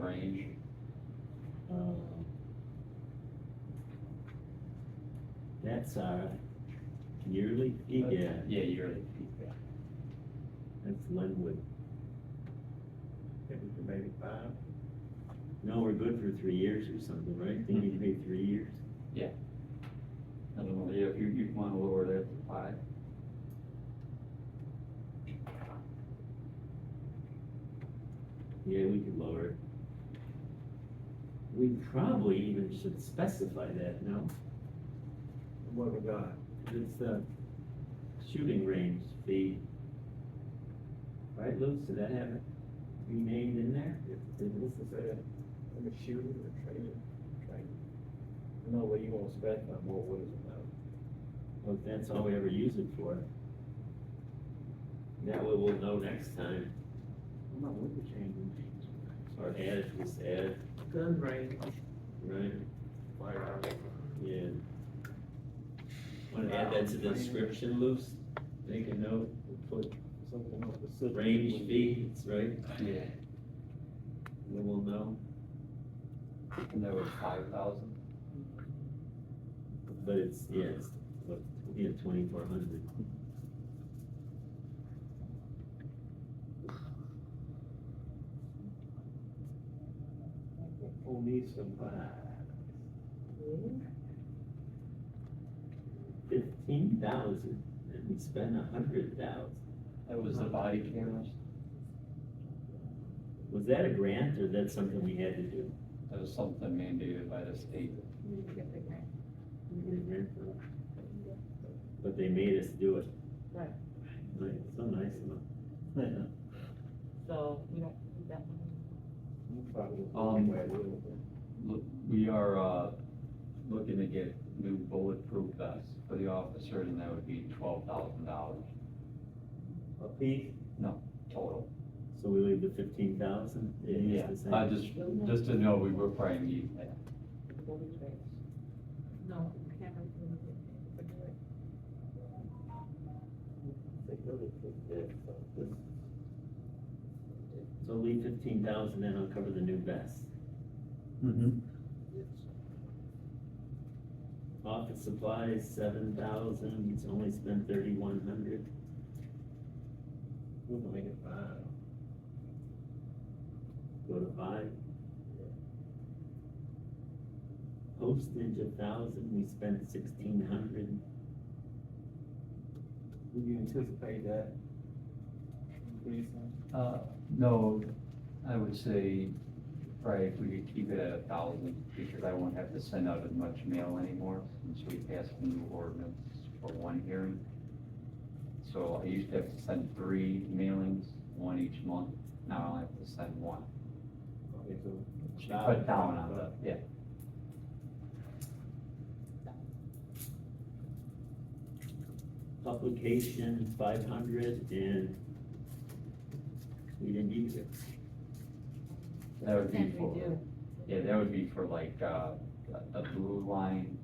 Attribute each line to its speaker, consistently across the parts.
Speaker 1: range. Um,
Speaker 2: That's our yearly fee guide.
Speaker 1: Yeah, yearly fee, yeah.
Speaker 2: That's Linwood.
Speaker 3: It was maybe five.
Speaker 2: No, we're good for three years or something, right? Then you pay
Speaker 3: Mm-hmm.
Speaker 2: three years.
Speaker 1: I don't know, yeah, if you, you want to lower that to five.
Speaker 2: Yeah, we could lower it. We probably even should specify that, no?
Speaker 3: What we got?
Speaker 2: It's the shooting range fee. Right, Lou, did that have it renamed in there?
Speaker 3: This is a, like a shooter or a trailer, trailer. I know what you want to spec, but more what is it now?
Speaker 2: Well, if that's all we ever use it for. That way we'll know next time,
Speaker 3: I'm not with the changing names.
Speaker 2: or add it, just add it,
Speaker 3: Gun range.
Speaker 2: right?
Speaker 3: Firearm.
Speaker 2: Yeah. Want to add that to the description, Luce? Make a note, put
Speaker 3: Something on the. system.
Speaker 2: range fee, that's right,
Speaker 1: Yeah.
Speaker 2: then we'll know.
Speaker 1: And that was five thousand?
Speaker 2: But it's, yeah, it's, what, yeah, twenty-four hundred.
Speaker 3: We'll need some, uh,
Speaker 2: Fifteen thousand, and we spent a hundred thousand.
Speaker 1: That was the body cameras?
Speaker 2: Was that a grant, or that's something we had to do?
Speaker 1: That was something mandated by the state.
Speaker 2: We get a grant for it? But they made us do it.
Speaker 4: Right.
Speaker 2: Like, so nice of them.
Speaker 4: So we don't need that one.
Speaker 3: you probably.
Speaker 1: Um, Look, we are, uh, looking to get new bulletproof vests for the officers, and that would be twelve thousand dollars
Speaker 2: A piece,
Speaker 1: total.
Speaker 2: so we leave the fifteen thousand?
Speaker 1: I just, just to know, we were probably need that.
Speaker 4: No, cameras. we don't get that.
Speaker 2: So leave fifteen thousand, then I'll cover the new vest.
Speaker 1: Mm-hmm.
Speaker 2: Office supplies, seven thousand, it's only spent thirty-one hundred.
Speaker 3: We're gonna make it five.
Speaker 2: go to five. Postage a thousand, we spent sixteen hundred,
Speaker 3: Do you anticipate that? Increasing?
Speaker 1: Uh, no, I would say, probably if we could keep it at a thousand, because I won't have to send out as much mail anymore, since we passed the new ordinance for one hearing. So I used to have to send three mailings, one each month, now I only have to send one.
Speaker 3: Okay, so.
Speaker 1: She cut down on that, yeah.
Speaker 2: publication five hundred, and we didn't use it.
Speaker 1: That would be
Speaker 4: Then we
Speaker 1: for,
Speaker 4: do.
Speaker 1: yeah, that would be for like, uh, the- the blue line,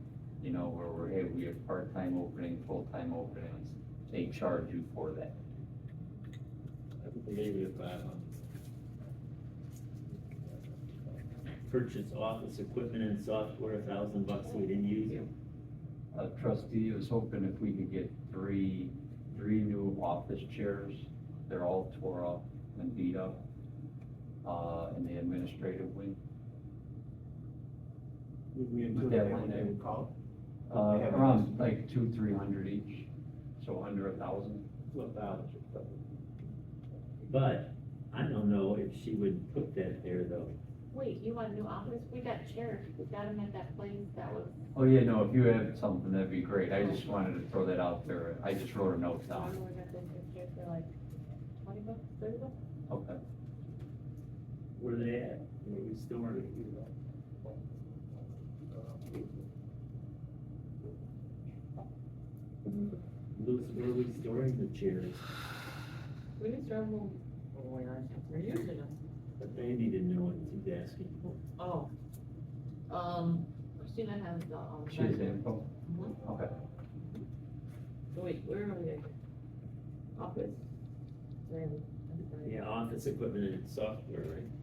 Speaker 1: you know, where we're, hey, we have part-time opening, full-time openings. They charge you for that.
Speaker 2: Maybe uh, a five hundred. Purchase office equipment and software, a thousand bucks, we didn't use it.
Speaker 1: A trustee was hoping if we could get three, three new office chairs. They're all tore up and beat up, uh, in the administrative wing.
Speaker 3: We, we
Speaker 1: Put
Speaker 3: anticipate
Speaker 1: that one
Speaker 3: what they
Speaker 1: there.
Speaker 3: would call
Speaker 1: Uh,
Speaker 3: Yeah.
Speaker 1: around like two, three hundred each, so under a thousand.
Speaker 3: it, twelve dollars or something.
Speaker 2: But I don't know if she would put that there though.
Speaker 4: Wait, you want a new office? We got chairs, we got them at that place that was.
Speaker 1: Oh, yeah, no, if you have something, that'd be great. I just wanted to throw that out there. I just wrote a note down.
Speaker 4: We got them new chairs for like twenty bucks, thirty bucks?
Speaker 1: Okay.
Speaker 2: Where they at? Where we storing it?
Speaker 3: Uh,
Speaker 2: Luce, where are we storing the chairs?
Speaker 4: We just drove them. Where? We're using them.
Speaker 2: But they need to know what he's asking for.
Speaker 4: Oh. Um, Christina has the, um.
Speaker 1: She has info?
Speaker 4: Mhm.
Speaker 1: Okay.
Speaker 4: Wait, where are we? at? Office. Where are we? I'm sorry.
Speaker 2: Yeah, office equipment and software, right?